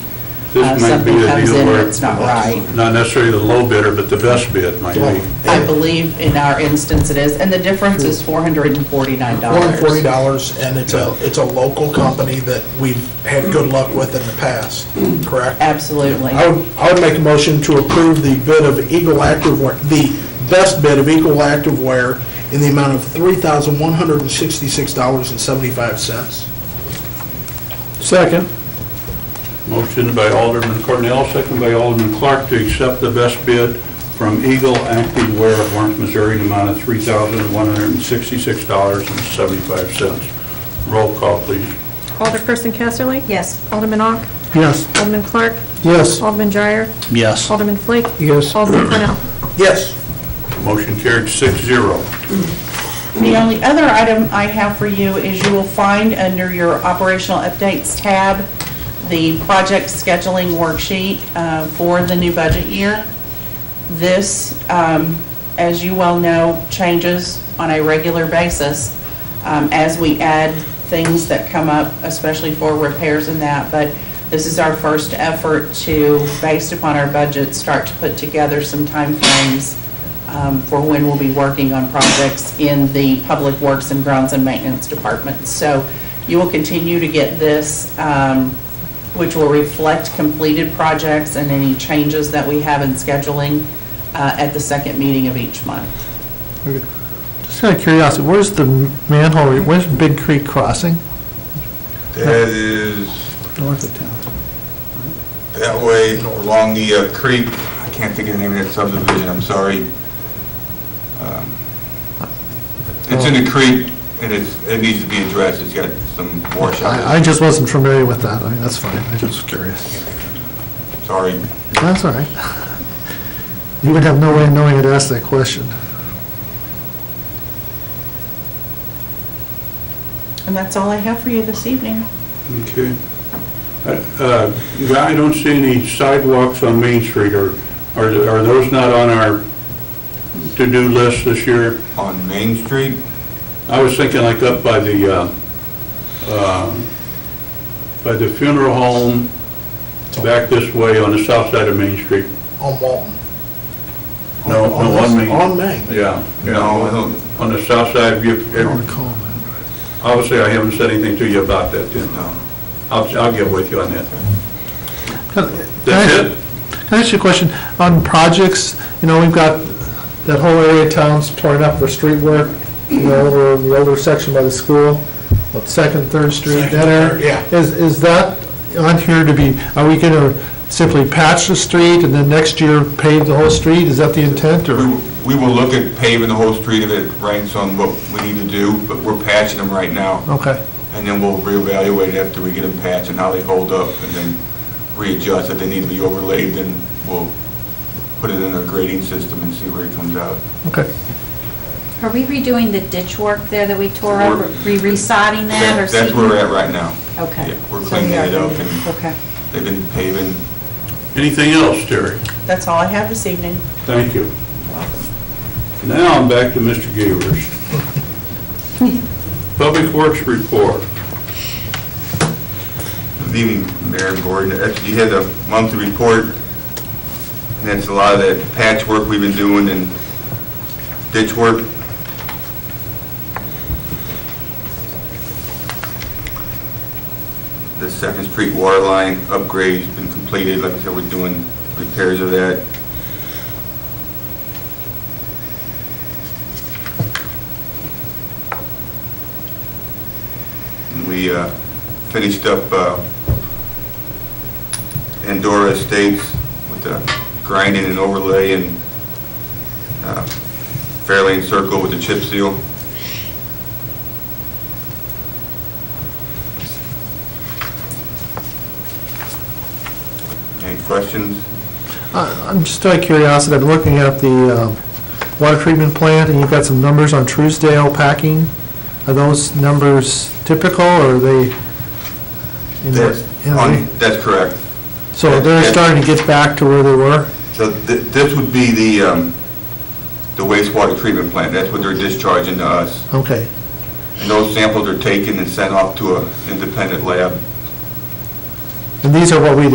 uh, This might be something a comes deal in where and it's not right. Not necessarily the low bidder, but the best bid might be. I believe in our instance it is, and the difference is $449. $440, and it's a, it's a local company that we've had good luck with in the past, correct? Absolutely. I would, I would make a motion to approve the bid of Eagle Activewear, the best bid of Eagle Activewear in the amount of $3,166.75. Second. Motion by Alderman Cornell, second by Alderman Clark to accept the best bid from Eagle Active Wear of Lawrence, Missouri, in the amount of $3,166.75. Roll call, please. Alderperson Casterly? Yes. Alderman Ock? Yes. Alderman Clark? Yes. Alderman Dreyer? Yes. Alderman Flake? Yes. Alderman Cornell? Yes. Motion carried six zero. The only other item I have for you is you will find under your operational updates tab, the project scheduling worksheet uh, for the new budget year. This, um, as you well know, changes on a regular basis um, as we add things that come up, especially for repairs and that. But this is our first effort to, based upon our budget, start to put together some timeframes um, for when we'll be working on projects in the Public Works and Grounds and Maintenance Department. So you will continue to get this, um, which will reflect completed projects and any changes that we have in scheduling uh, at the second meeting of each month. Just out of curiosity, where's the manhole, where's Big Creek Crossing? That is North of town. that way along the uh, creek, I can't think of the name of that subdivision, I'm sorry. Um, It's in the creek, and it's, it needs to be addressed, it's got some I, I washout, just wasn't familiar with that, I mean, that's fine, I just was curious. sorry. That's all right. You would have no way of knowing I'd ask that question. And that's all I have for you this evening. Okay. Uh, yeah, I don't see any sidewalks on Main Street, or are are those not on our to-do list this year? On Main Street, I was thinking like up by the, uh, um, by the funeral home, back this way on the south side of Main Street. On Walton. No, no, on Main. On Main. Yeah, No, I yeah, don't- on the south side, you, I don't recall that. obviously I haven't said anything to you about that, then. no. I'll, I'll get with you on that. Can I- can I That's ask- it? Can I ask you a question? On projects, you know, we've got that whole area of town's torn up for street work, you know, over in the older section by the school, what, Second, Third Street, that area? Second, Yeah. Is, is that on here to be, are we gonna simply patch the street and then next year pave the whole street? Is that the intent, We or? we will look at paving the whole street if it ranks on what we need to do, but we're patching them right now. Okay, And then we'll reevaluate after we get them patched and how they hold up, and then readjust. If they need to be overlaid, then we'll put it in a grading system and see where it comes out. okay. Are we redoing the ditch work there that we tore up? We're- Re resodding that or? That- That's where seeding? we're at right now. Okay. Yeah, we're So cleaning we are it up gonna- and- Okay. They've been paving, Anything else, Terry? That's all I have this evening. Thank you. Now I'm back to Mr. Gavers. Public Works report. Good evening, Mayor and Gordon. Actually, you had a monthly report, and that's a lot of that patchwork we've been doing and ditch work. The Second Street water line upgrade's been completed, like I said, we're doing repairs of that. And We uh, finished up uh, Andorra Estates with the grinding and overlay and uh, Fairlane Circle with the chip seal. Any questions? I- I'm just out of curiosity, I've been looking at the um, water treatment plant, and you've got some numbers on Truesdale packing. Are those numbers typical, or are they? in what- That's in what- on- That's correct. So they're starting to get back to where they were? So th- this would be the um, the wastewater treatment plant. That's what they're discharging to us. Okay, And those samples are taken and sent off to an independent lab and these are what we